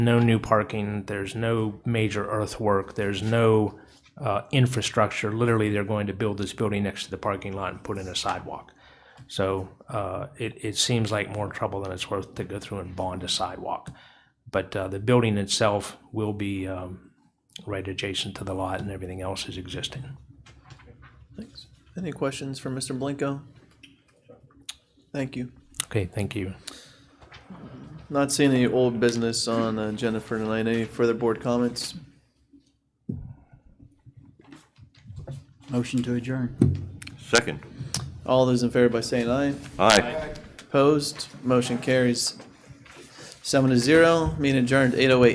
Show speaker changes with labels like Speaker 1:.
Speaker 1: no new parking, there's no major earthwork, there's no uh, infrastructure. Literally, they're going to build this building next to the parking lot and put in a sidewalk. So uh, it, it seems like more trouble than it's worth to go through and bond a sidewalk. But uh, the building itself will be um, right adjacent to the lot and everything else is existing.
Speaker 2: Thanks. Any questions for Mr. Blanco? Thank you.
Speaker 1: Okay, thank you.
Speaker 2: Not seeing any old business on uh, the agenda for tonight. Any further board comments?
Speaker 3: Motion to adjourn.
Speaker 4: Second.
Speaker 2: All those in favor by saying aye.
Speaker 4: Aye.
Speaker 2: Opposed? Motion carries. Seven to zero. Meeting adjourned eight oh eight.